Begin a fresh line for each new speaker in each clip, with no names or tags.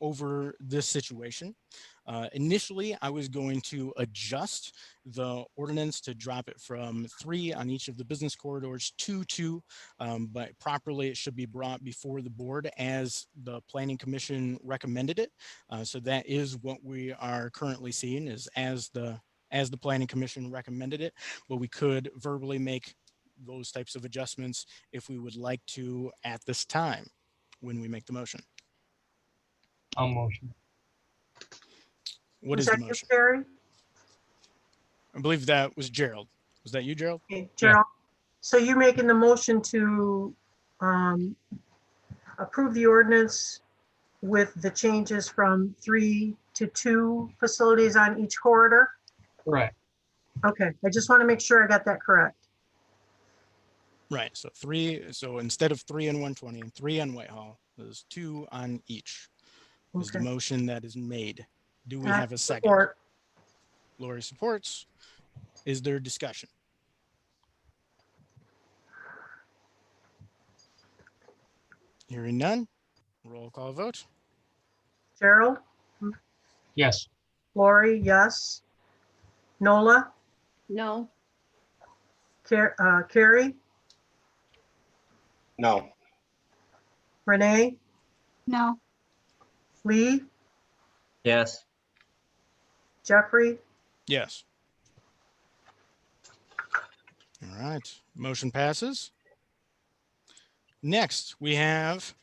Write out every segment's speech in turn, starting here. over this situation. Uh, initially, I was going to adjust the ordinance to drop it from three on each of the business corridors to two. um, but properly, it should be brought before the board as the planning commission recommended it. Uh, so that is what we are currently seeing is as the, as the planning commission recommended it. But we could verbally make those types of adjustments if we would like to at this time when we make the motion.
I'll motion.
What is
Was
the
that you,
motion?
Barry?
I believe that was Gerald. Was that you, Gerald?
Okay, Gerald, so you're making the motion to um, approve the ordinance with the changes from three to two facilities on each corridor?
Correct.
Okay, I just want to make sure I got that correct.
Right. So three, so instead of three on one twenty and three on Whitehall, there's two on each. Is the
Okay.
motion that is made. Do we
Uh,
have a second?
Or-
Lori supports. Is there discussion? Hearing none. Roll call vote.
Gerald,
Yes.
Lori, yes. Nola,
No,
Car- uh, Carrie,
No,
Renee,
No,
Lee,
Yes,
Jeffrey,
Yes. All right, motion passes. Next, we have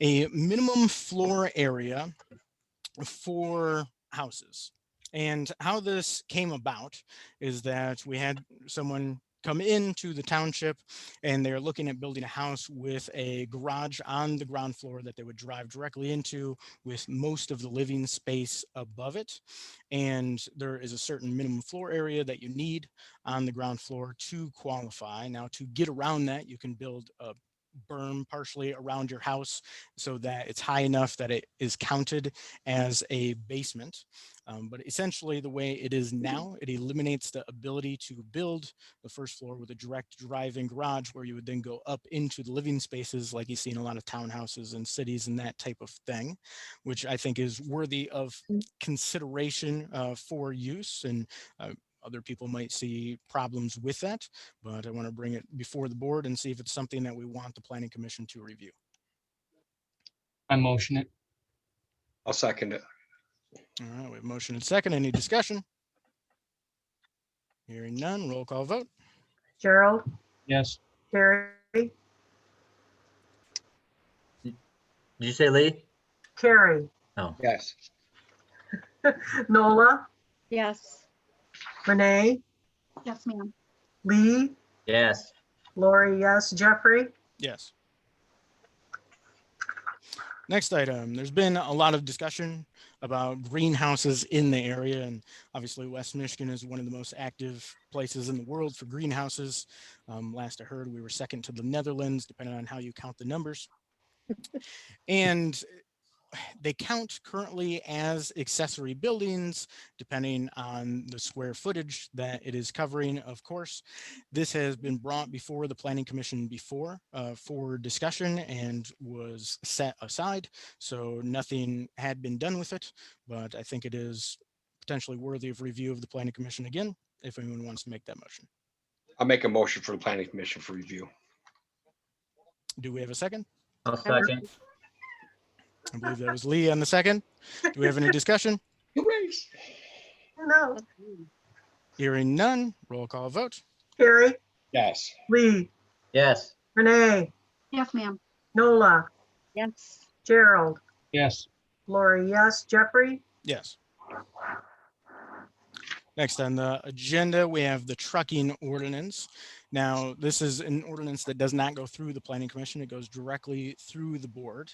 a minimum floor area for houses. And how this came about is that we had someone come into the township and they're looking at building a house with a garage on the ground floor that they would drive directly into with most of the living space above it and there is a certain minimum floor area that you need on the ground floor to qualify. Now, to get around that, you can build a berm partially around your house so that it's high enough that it is counted as a basement. Um, but essentially, the way it is now, it eliminates the ability to build the first floor with a direct drive-in garage where you would then go up into the living spaces like you see in a lot of townhouses and cities and that type of thing, which I think is worthy of consideration uh, for use and uh, other people might see problems with that, but I want to bring it before the board and see if it's something that we want the planning commission to review.
I motion it.
I'll second it.
All right, we have motion and second. Any discussion? Hearing none, roll call vote.
Gerald,
Yes.
Carrie,
did you say Lee?
Carrie,
Yes,
Nola,
yes,
Renee,
yes, ma'am.
Lee,
Yes,
Lori, yes. Jeffrey?
Yes. Next item, there's been a lot of discussion about greenhouses in the area and obviously West Michigan is one of the most active places in the world for greenhouses. Um, last I heard, we were second to the Netherlands, depending on how you count the numbers. And they count currently as accessory buildings, depending on the square footage that it is covering, of course this has been brought before the planning commission before uh, for discussion and was set aside. So nothing had been done with it, but I think it is potentially worthy of review of the planning commission again, if anyone wants to make that motion.
I'll make a motion for the planning commission for review.
Do we have a second?
I'll second.
I believe that was Lee on the second. Do we have any discussion?
No.
Hmm.
Hearing none, roll call vote.
Carrie,
Yes,
Lee,
Yes,
Renee,
Yes, ma'am.
Nola,
yes,
Gerald,
Yes.
Lori, yes. Jeffrey?
Yes. Next on the agenda, we have the trucking ordinance. Now, this is an ordinance that does not go through the planning commission. It goes directly through the board.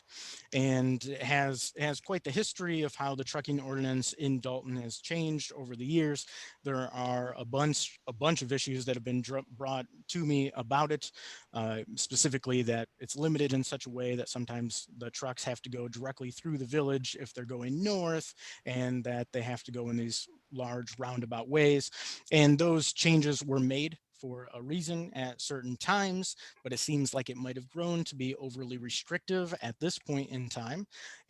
And it has, it has quite the history of how the trucking ordinance in Dalton has changed over the years. There are a bunch, a bunch of issues that have been dr- brought to me about it. uh, Specifically that it's limited in such a way that sometimes the trucks have to go directly through the village if they're going north and that they have to go in these large roundabout ways. And those changes were made for a reason at certain times, but it seems like it might have grown to be overly restrictive at this point in time.